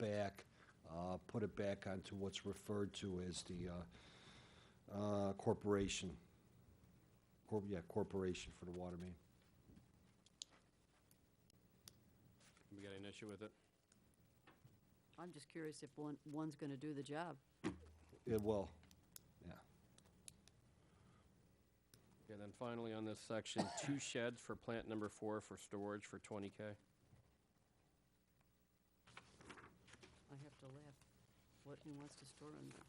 back, uh, put it back onto what's referred to as the uh, uh, corporation. Corp, yeah, corporation for the water main. We got an issue with it? I'm just curious if one, one's going to do the job. It will, yeah. Okay, then finally on this section, two sheds for plant number four for storage for twenty K. I have to laugh. What he wants to store in there.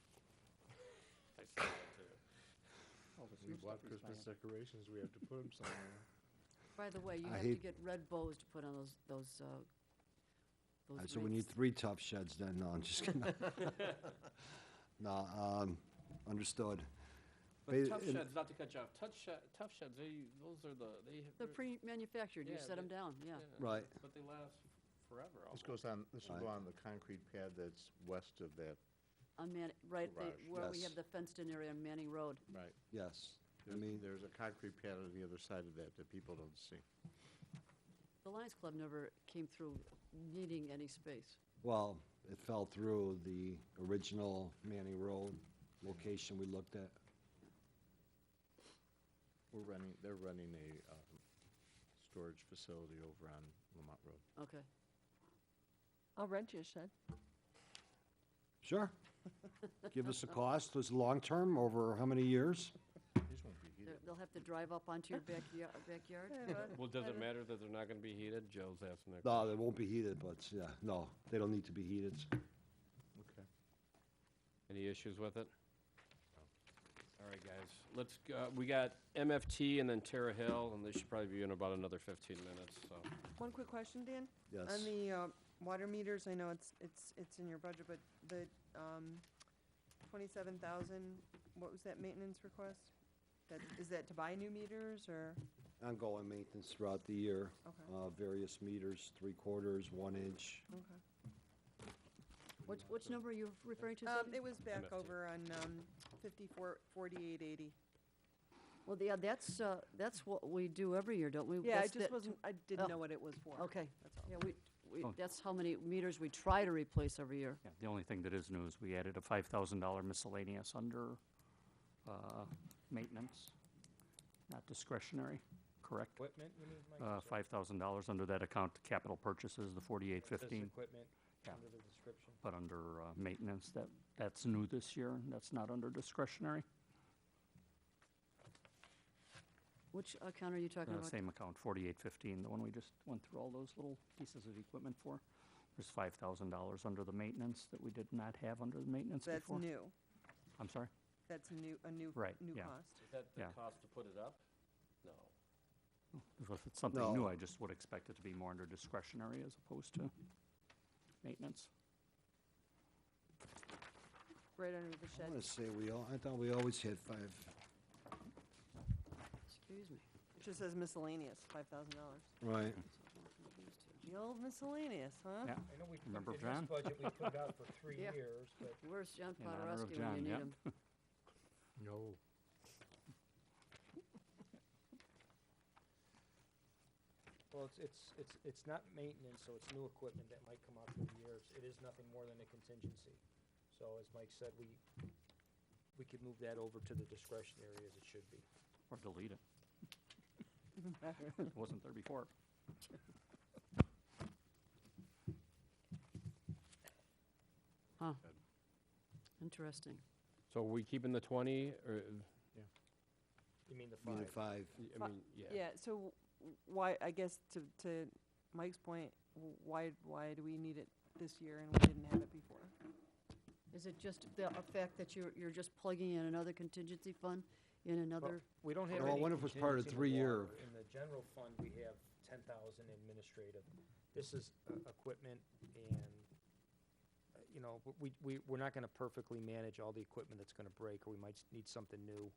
See what Christmas decorations we have to put them somewhere. By the way, you I have to hate- get red bows to put on those, those, uh, Uh, those So we need wreaths. three tough sheds then, no, I'm just kidding. No, um, understood. But Ba- tough in- sheds, not to cut you off, tough shed, tough sheds, they, those are the, they. They're they're- pre-manufactured, you Yeah, set they- them down, yeah. Right. But they last forever This almost. goes on, this will go Right. on the concrete pad that's west of that. On Man, right, the- Garage. where we Yes. have the fenced-in area on Manning Road. Right. Yes, I There's, mean, there's a concrete pad on the other side of that that people don't see. The Lions Club never came through needing any space. well, it fell through the original Manning Road location we looked at. We're running, they're running a, um, storage facility over on Lamont Road. Okay. I'll rent you a shed. Sure. Give us a cost, was long-term, over how many years? These won't be They're- heated. They'll have to drive up onto your backyard, backyard? Well, does it matter that they're not gonna be heated? Joe's asking that. No, they won't be heated, but, yeah, no, they don't need to be heated. Okay. Any issues with it? All right, guys, let's, go- we got MFT and then Terra Hill, and they should probably be in about another fifteen minutes, so. One quick question, Dan. Yes. On the uh, water meters, I know it's, it's, it's in your budget, but the um, 27,000, what was that maintenance request? That, is that to buy new meters or, Ongoing maintenance throughout the year, Okay. uh, various meters, three quarters, one inch. okay. Which, which number are you referring to? Um, Cindy? It was back MFT. over on um, 54, 4880. Well, yeah, that's, uh, that's what we do every year, don't we? Yeah, I That's just the- wasn't, I oh, didn't know what it was for. Okay. That's all. Yeah, we, we, Oh. that's how many meters we try to replace every year. Yeah, the only thing that is new is we added a five thousand dollar miscellaneous under, uh, maintenance, not discretionary, correct? Equipment, you mean, Mike? Uh, I'm sorry. five thousand dollars under that account, capital purchases, the forty-eight It says fifteen, Equipment Yeah. under the description. but under, uh, maintenance, that, that's new this year, and that's not under discretionary. Which account are you talking Uh, about? same account, forty-eight fifteen, the one we just went through all those little pieces of equipment for. There's five thousand dollars under the maintenance that we did not have under the maintenance That's before. new. I'm sorry? That's new, a new, Right, new yeah. cost. Is that the Yeah. cost to put it up? No. If it's something new, No. I just would expect it to be more under discretionary as opposed to maintenance. Right under the I shed. want to say we all, I thought we always had five. Excuse me. It just says miscellaneous, $5,000. Right. The old miscellaneous, huh? Yeah, I know we, Remember in John? this budget, we put it out for three Yeah. years, but Where's John In honor of Podorowski when you John, need yep. him? No. Well, it's, it's, it's, it's not maintenance, so it's new equipment that might come out through the years. It is nothing more than a contingency. So as Mike said, we, we could move that over to the discretionary as it should be. or delete it. It wasn't there before. Huh. Interesting. So are we keeping the twenty, or, You mean the Meaning five? five. I Fi- mean, yeah. Yeah, so w- why, I guess to, to Mike's point, w- why, why do we need it this year and we didn't have it before? Is it just the a fact that you're, you're just plugging in another contingency fund in another? We don't have Well, I any wonder if it's part of contingency in the three-year. water. In the general fund, we have ten thousand administrative. This is uh, equipment and, uh, you know, w- we, we, we're not gonna perfectly manage all the equipment that's gonna break, or we might s- need something new.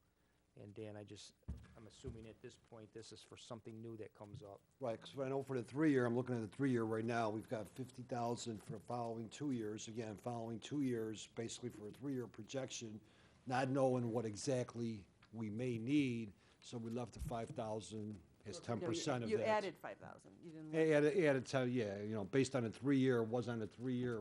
And Dan, I just, I'm assuming at this point, this is for something new that comes up. Right, because I know for the three-year, I'm looking at the three-year right now, we've got fifty thousand for the following two years, again, following two years, basically for a three-year projection, not knowing what exactly we may need, so we left the five thousand as ten No, you- percent of that. You added fidd thousand, you didn't. A- Added, added, to- yeah, you know, based on a three-year, was on a three-year